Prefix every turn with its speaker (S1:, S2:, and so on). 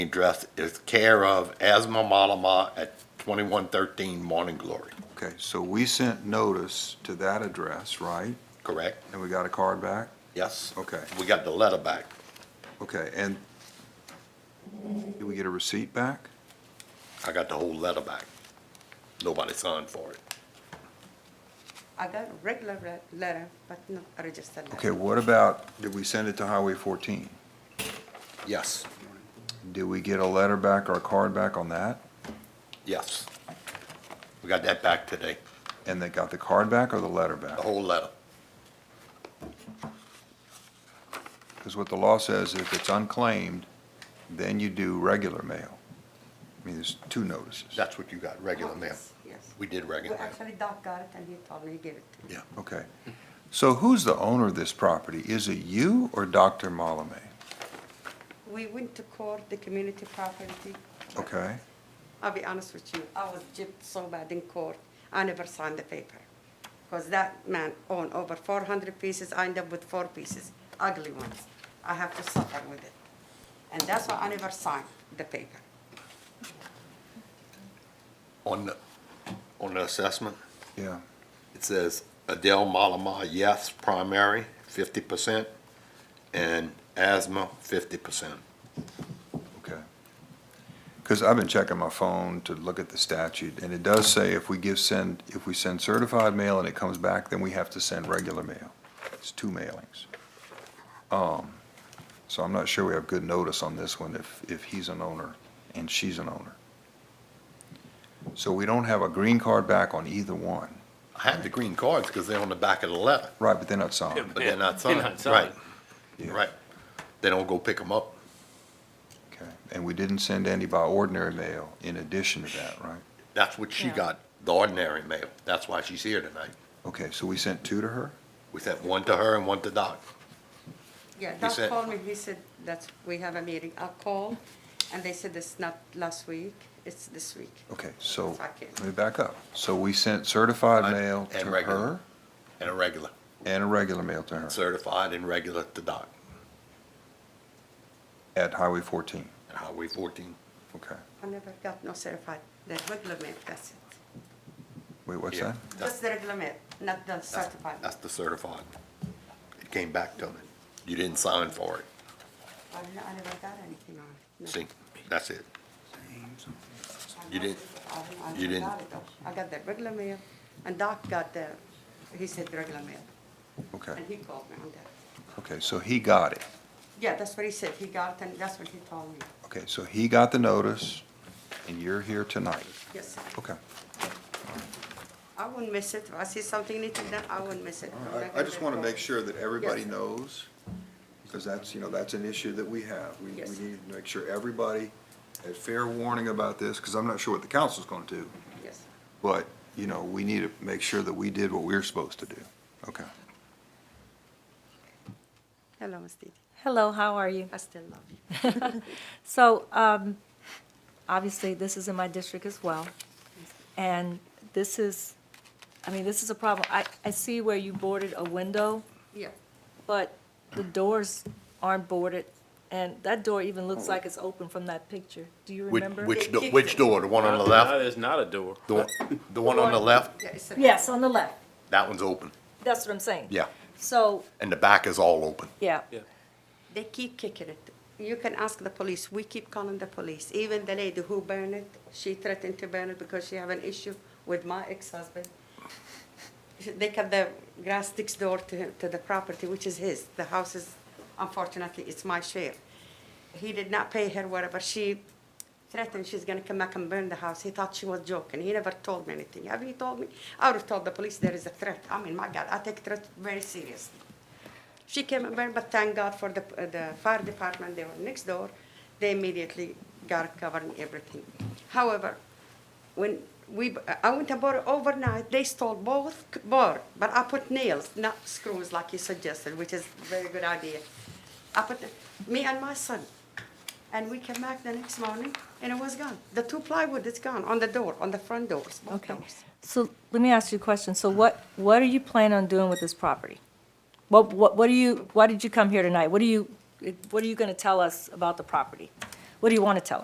S1: address is care of Asma Malama at 2113 Morning Glory,
S2: Okay, so we sent notice to that address, right?
S1: correct?
S2: And we got a card back?
S1: Yes.
S2: Okay.
S1: We got the letter back.
S2: Okay, and did we get a receipt back?
S1: I got the whole letter back. Nobody signed for it.
S3: I got a regular re- letter, but not a registered letter.
S2: Okay, what about, did we send it to Highway 14?
S1: Yes.
S2: Did we get a letter back or a card back on that?
S1: Yes. We got that back today,
S2: And they got the card back or the letter back?
S1: the whole letter.
S2: Because what the law says, if it's unclaimed, then you do regular mail. I mean, there's two notices.
S1: That's what you got, regular mail.
S3: Yes, Yes.
S1: We did regular
S3: Well,
S1: mail.
S3: actually, Doc got it and he told me he gave it to me.
S1: Yeah.
S2: Okay. So who's the owner of this property? Is it you or Dr. Malame?
S3: We went to court, the community property. but
S2: Okay,
S3: I'll be honest with you, I was gypped so bad in court, I never signed the paper. Because that man owned over four hundred pieces, I end up with four pieces, ugly ones. I have to suffer with it. And that's why I never signed the paper.
S1: On the, on the assessment,
S2: yeah.
S1: it says Adele Malama, yes, primary, 50%, and asthma, 50%.
S2: Okay. Because I've been checking my phone to look at the statute, and it does say if we give send, if we send certified mail and it comes back, then we have to send regular mail. It's two mailings. Um, So I'm not sure we have good notice on this one if, if he's an owner and she's an owner. So we don't have a green card back on either one.
S1: I had the green cards because they're on the back of the letter.
S2: Right, but they're not signed.
S1: But they're not
S4: They're
S1: signed,
S4: not
S1: right,
S4: signed.
S2: Yeah.
S1: right. They don't go pick them up.
S2: Okay. And we didn't send any by ordinary mail in addition to that, right?
S1: That's what she
S3: Yeah.
S1: got, the ordinary mail. That's why she's here tonight.
S2: Okay, so we sent two to her?
S1: We sent one to her and one to Doc.
S3: Yeah, Doc
S1: said-
S3: called me, he said that we have a meeting, I called, and they said it's not last week, it's this week.
S2: Okay, so,
S3: If I can.
S2: let me back up. So we sent certified
S1: And-
S2: mail
S1: and
S2: to
S1: regular.
S2: her
S1: And a regular,
S2: and a regular mail to her
S1: certified and regular to Doc
S2: at Highway 14.
S1: at Highway 14.
S2: Okay,
S3: I never got no certified, the regular mail, that's it.
S2: wait, what's
S1: Yeah.
S2: that?
S1: That's-
S3: Just the regular mail, not the
S1: that's-
S3: certified.
S1: That's the certified. It came back to me. You didn't sign for it.
S3: I don't know, I never got anything on it. no.
S1: See, that's it.
S3: I
S1: you
S3: got-
S1: didn't-
S3: I- I
S1: you didn't-
S3: got it all. I got the regular mail, and Doc got the, he said regular mail,
S2: Okay,
S3: and he called me on that.
S2: okay, so he got it.
S3: Yeah, that's what he said, he got it, and that's what he told me,
S2: Okay, so he got the notice and you're here tonight.
S3: yes.
S2: Okay.
S3: I wouldn't miss it, if I see something needed, then I wouldn't miss it. I'm not
S2: I just
S3: gonna
S2: want to
S3: call.
S2: make sure that everybody
S3: Yes.
S2: knows, because that's, you know, that's an issue that we have. We,
S3: Yes.
S2: we need to make sure everybody had fair warning about this, because I'm not sure what the council's going to do.
S3: Yes.
S2: But, you know, we need to make sure that we did what we were supposed to do. Okay.
S3: Hello, Miss Didi,
S5: Hello, how are you?
S3: I still love you.
S5: So, um, obviously, this is in my district as well, and this is, I mean, this is a problem. I, I see where you boarded a window,
S3: Yeah,
S5: but the doors aren't boarded, and that door even looks like it's open from that picture. Do you
S1: Which,
S5: remember?
S1: which, do- which door? The one on the
S4: No,
S1: left?
S4: there's not a door.
S1: The, one- the one on the left?
S3: yeah, it's a.
S5: Yes, on the left.
S1: That one's open.
S5: That's what I'm saying.
S1: Yeah.
S5: So,
S1: And the back is all open.
S5: yeah,
S4: Yeah.
S3: They keep kicking it. You can ask the police. We keep calling the police. Even the lady who burned it, she threatened to burn it because she have an issue with my ex-husband. They cut the grass next door to, to the property, which is his. The house is, unfortunately, it's my share. He did not pay her whatever. She threatened she's gonna come back and burn the house. He thought she was joking. He never told me anything. Have you told me? I would have told the police there is a threat. I mean, my God, I take threat very seriously. She came and went, but thank God for the, uh, the fire department, they were next door. They immediately got it covered and everything. However, when we, uh, I went aboard overnight, they stole both c- board, but I put nails, not screws like you suggested, which is very good idea. I put, me and my son, and we came back the next morning and it was gone. The two plywood is gone on the door, on the front doors, both
S5: okay.
S3: doors.
S5: So let me ask you a question. So what, what are you planning on doing with this property? What, what, what do you, why did you come here tonight? What do you, what are you gonna tell us about the property? What do you want to tell us?